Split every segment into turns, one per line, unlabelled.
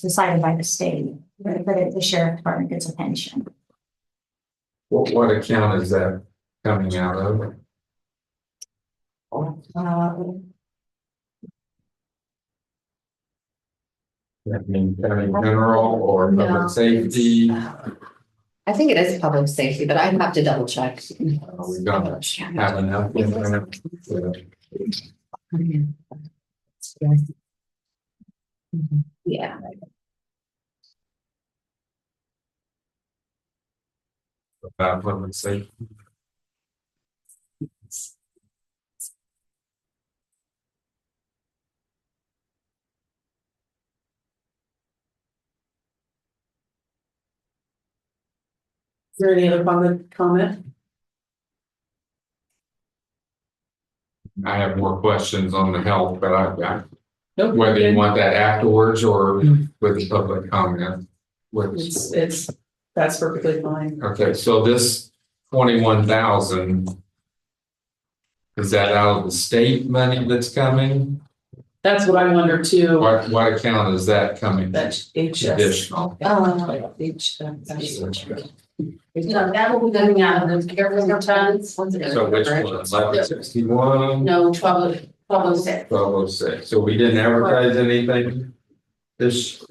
decided by the state, but but the sheriff department gets a pension.
What, what account is that coming out of?
Uh,
I mean, county general or public safety? Uh,
I think it is public safety, but I'd have to double check.
We don't have enough. in there to-
Yeah,
About public safety.
Is there any other comment, comment?
I have more questions on the health, but I've got,
Nope.
whether you want that afterwards or
Mm.
with the public comment. Which,
It's, it's, that's perfectly fine.
okay, so this twenty-one thousand. Is that out of the state money that's coming?
That's what I wonder too,
What, what account is that coming?
that's HS.
Additional.
Yeah, H, uh,
No, that will be coming out of the careful returns.
So which one, eleven sixty-one?
No, twelve, twelve oh six.
Twelve oh six, so we didn't advertise anything? This,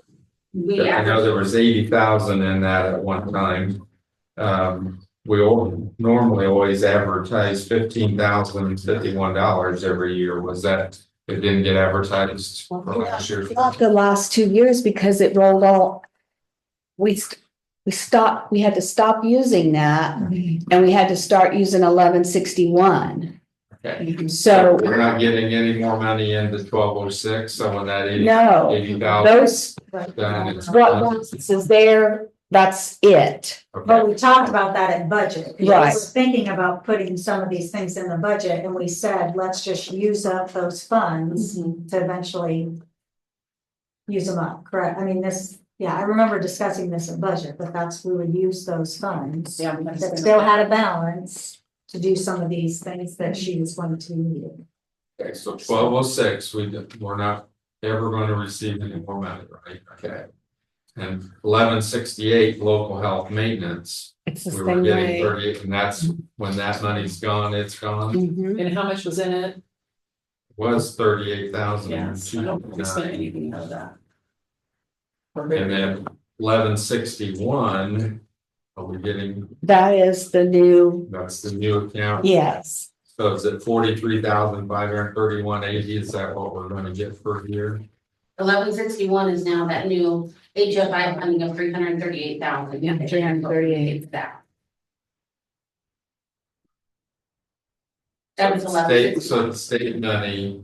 We
I know
average
there was eighty thousand in that at one time. Um, we all normally always advertise fifteen thousand fifty-one dollars every year, was that? It didn't get advertised for last year,
Not the last two years because it rolled all. We, st- we stopped, we had to stop using that and we had to start using eleven sixty-one.
okay?
So,
We're not getting any more money into twelve oh six, so when that eighty,
no,
eighty thousand.
those, what ones is there, that's it.
but we talked about that at budget. We
Right.
were Thinking about putting some of these things in the budget and we said, let's just use up those funds to eventually. Use them up, correct? I mean, this, yeah, I remember discussing this at budget, but that's, we would use those funds.
Yeah, I'm
That
just
still
gonna-
had a balance to do some of these things that she was going to need.
Okay, so twelve oh six, we, don't- we're not ever gonna receive any more money, right? Okay. And eleven sixty-eight, local health maintenance,
It's
we were getting thirty, and that's when that money's gone, it's gone,
Mm-hmm.
Mhm.
And how much was in it?
was thirty-eight thousand.
Yes, I don't think we spent anything out of that. Or
And
maybe-
then eleven sixty-one, are we getting,
That is the new,
that's the new account,
yes,
so is it forty-three thousand five hundred thirty-one eighty, is that what we're gonna get per year?
eleven sixty-one is now that new HFI funding of three hundred and thirty-eight thousand.
Yeah, 338.
That. That was eleven
State-
sixty.
So the state money.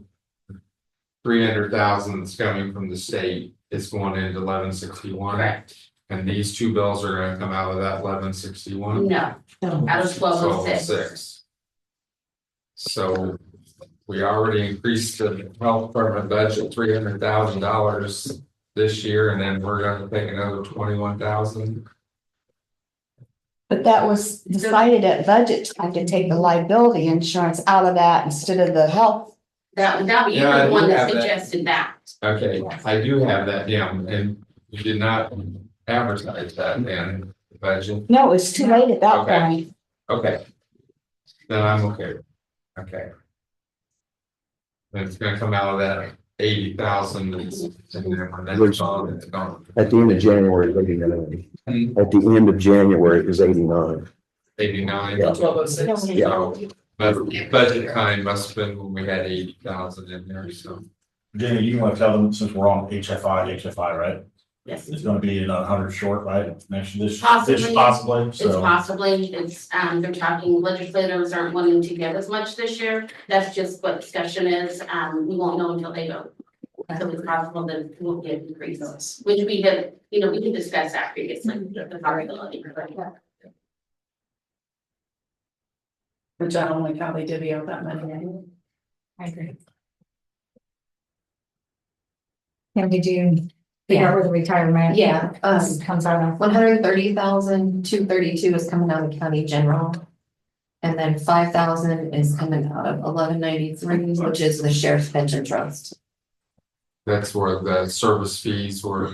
Three hundred thousand that's coming from the state is going into eleven sixty one,
Correct.
and these two bills are gonna come out of that eleven sixty one.
No, out of twelve oh six.
So we already increased the health department budget three hundred thousand dollars this year, and then we're gonna take another twenty one thousand.
but that was decided at budget time to take the liability insurance out of that instead of the health.
That, that, you
Yeah, I
were
do
the
have
one that
that.
suggested that.
Okay, I do have that down, and you did not advertise that in the budget.
No, it's too late at that
Okay.
point.
Okay. Then I'm okay. Okay. And it's gonna come out of that eighty thousand.
Which- At the end of January,
Hmm.
eighty-nine. At the end of January, it was eighty-nine.
Eighty-nine.
Yeah.
Twelve oh six.
So, but budget time must have been when we had eighty thousand in there, so.
Jamie, you want to tell them since we're on HFI, HFI, right?
Yes.
It's gonna be another hundred short, right? Next, this, this
Possibly.
possibly,
It's
so.
possibly, it's, um, they're talking legislators aren't wanting to give as much this year, that's just what discussion is, um, we won't know until they vote. So it's possible that it will get increases, which we have, you know, we can discuss that previously, the possibility.
Which I don't like how they divvy out that money.
I agree. Can we do, figure out where the retirement?
yeah, um,
Comes out of.
one hundred and thirty thousand, two thirty-two is coming out of county general. And then five thousand is coming out of eleven ninety-three, which is the sheriff's pension trust.
That's where the service fees were